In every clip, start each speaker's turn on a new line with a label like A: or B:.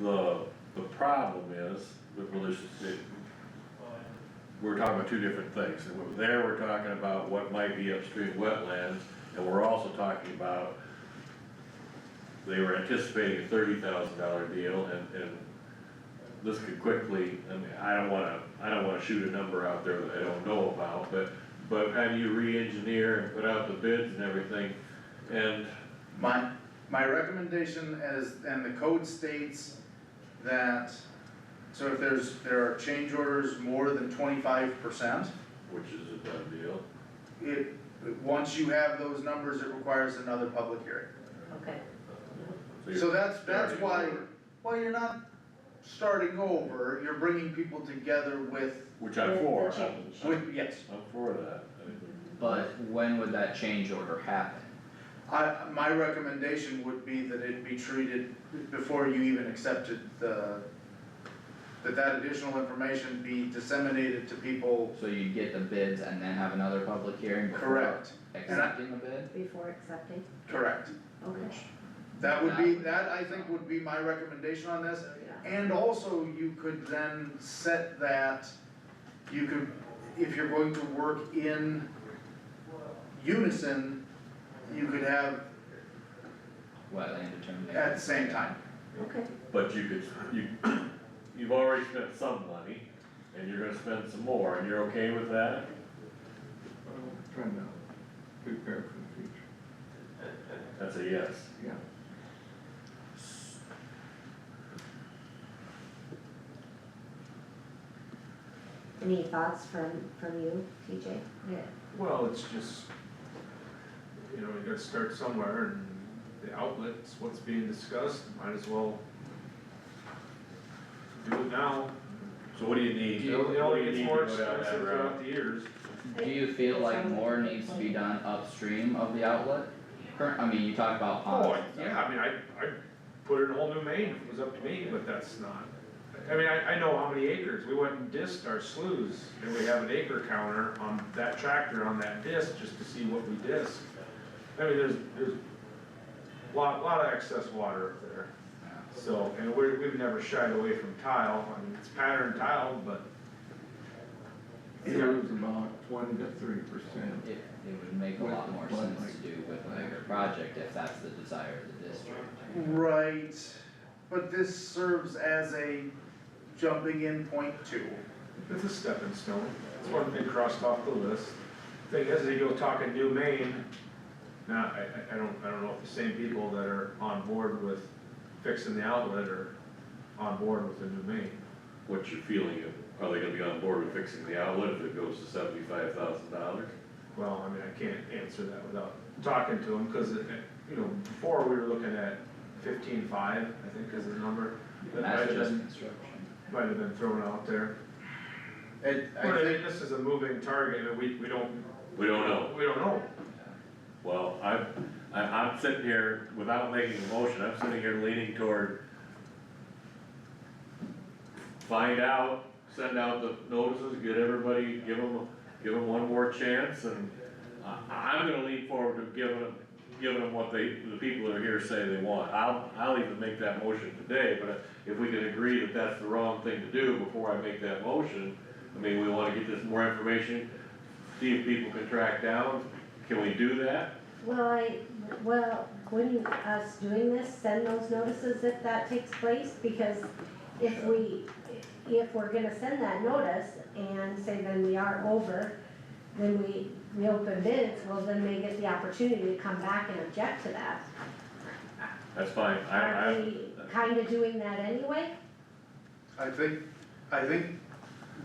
A: The, the problem is, that, well, there's, it, we're talking about two different things, and we're- there we're talking about what might be upstream wetlands, and we're also talking about they were anticipating a thirty thousand dollar deal, and, and this could quickly, I mean, I don't wanna, I don't wanna shoot a number out there that I don't know about, but, but how do you re-engineer and put out the bids and everything? And
B: My, my recommendation is, and the code states that, so if there's, there are change orders more than twenty-five percent,
A: Which is a done deal.
B: it, once you have those numbers, it requires another public hearing.
C: Okay,
A: you're
B: So that's, that's
A: starting
B: why,
A: over,
B: well, you're not starting over, you're bringing people together with,
A: Which I'm for, I'm, I'm
B: with, yes.
A: I'm for that. I mean,
D: But when would that change order happen?
B: I, my recommendation would be that it be treated before you even accepted the, that that additional information be disseminated to people
D: So you'd get the bids and then have another public hearing before
B: correct,
D: accepting the bid?
C: before accepting,
B: correct.
C: okay,
B: That would be, that I think would be my recommendation on this,
C: yeah,
B: and also you could then set that, you could, if you're going to work in unison, you could have
D: Wetland determination.
B: at the same time.
C: okay,
A: But you could, you, you've already spent some money, and you're gonna spend some more, and you're okay with that?
E: trying to prepare for the future,
A: That's a yes.
E: yeah.
C: any thoughts from, from you, TJ? Yeah.
F: Well, it's just, you know, you gotta start somewhere and the outlet's what's being discussed, might as well do it now.
A: So what do you need?
F: It
A: What do
F: only
A: you
F: gets
A: need to
F: more
A: go down that
F: expensive
A: route?
F: throughout the years.
D: Do you feel like more needs to be done upstream of the outlet? Current, I mean, you talk about ponds
F: Oh,
D: and stuff.
F: yeah, I mean, I, I'd put in a whole new main if it was up to me, but that's not. I mean, I, I know how many acres, we went and dissed our sloughs, and we have an acre counter on that tractor on that disc, just to see what we disc. I mean, there's, there's lot, lot of excess water up there. So, and we're, we've never shied away from tile, I mean, it's patterned tile, but
E: It was about twenty to thirty percent.
D: It, it would make a lot more
E: Well,
D: sense
E: like-
D: to do with a bigger project if that's the desire of the district.
B: Right, but this serves as a jumping in point too.
F: It's a stepping stone, it's one thing crossed off the list. Thing is, they go talking New Maine, now, I, I, I don't, I don't know if the same people that are on board with fixing the outlet are on board with the New Maine.
A: What's your feeling of, are they gonna be on board with fixing the outlet if it goes to seventy-five thousand dollars?
F: Well, I mean, I can't answer that without talking to them, cause it, it- you know, before we were looking at fifteen-five, I think is the number. that might have
D: That's just
F: been-
D: construction.
F: Might have been thrown out there.
B: It,
F: But
B: I
F: I mean,
B: think,
F: this is a moving target, and we, we don't.
A: We don't know.
F: We don't know.
A: Well, I'm, I, I'm sitting here, without making a motion, I'm sitting here leaning toward find out, send out the notices, get everybody, give them, give them one more chance, and I, I'm gonna lean forward to giving them, giving them what they, the people that are here say they want. I'll, I'll even make that motion today, but if we can agree that that's the wrong thing to do before I make that motion, I mean, we wanna get this more information, see if people can track down, can we do that?
C: Well, I, well, wouldn't us doing this send those notices if that takes place? Because if we, if we're gonna send that notice and say then we are over, then we, we open bids, well, then they get the opportunity to come back and object to that.
A: That's fine, I,
C: Aren't
A: I,
C: we kinda doing that anyway?
B: I think, I think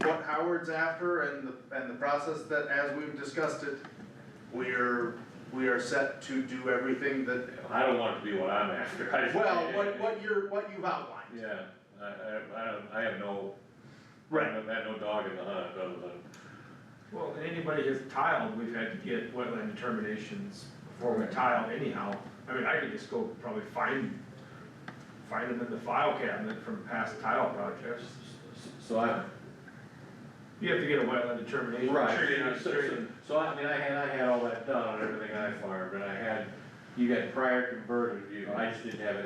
B: what Howard's after and the, and the process that, as we've discussed it, we're, we are set to do everything that,
A: I don't want it to be what I'm after, I just.
B: well, what, what you're, what you've outlined.
A: Yeah, I, I, I don't, I have no. I've had no dog in the hunt, other than,
F: Well, and anybody who's tiled, we've had to get wetland determinations before we
D: Right.
F: tile anyhow. I mean, I could just go probably find, find them in the file cabinet from past tile projects.
A: so I.
F: You have to get a wetland determination. Sure, you're not
A: So, so,
F: straight.
A: so I mean, I had, I had all that done on everything I farmed, and I had, you got prior converted, you, I just didn't have it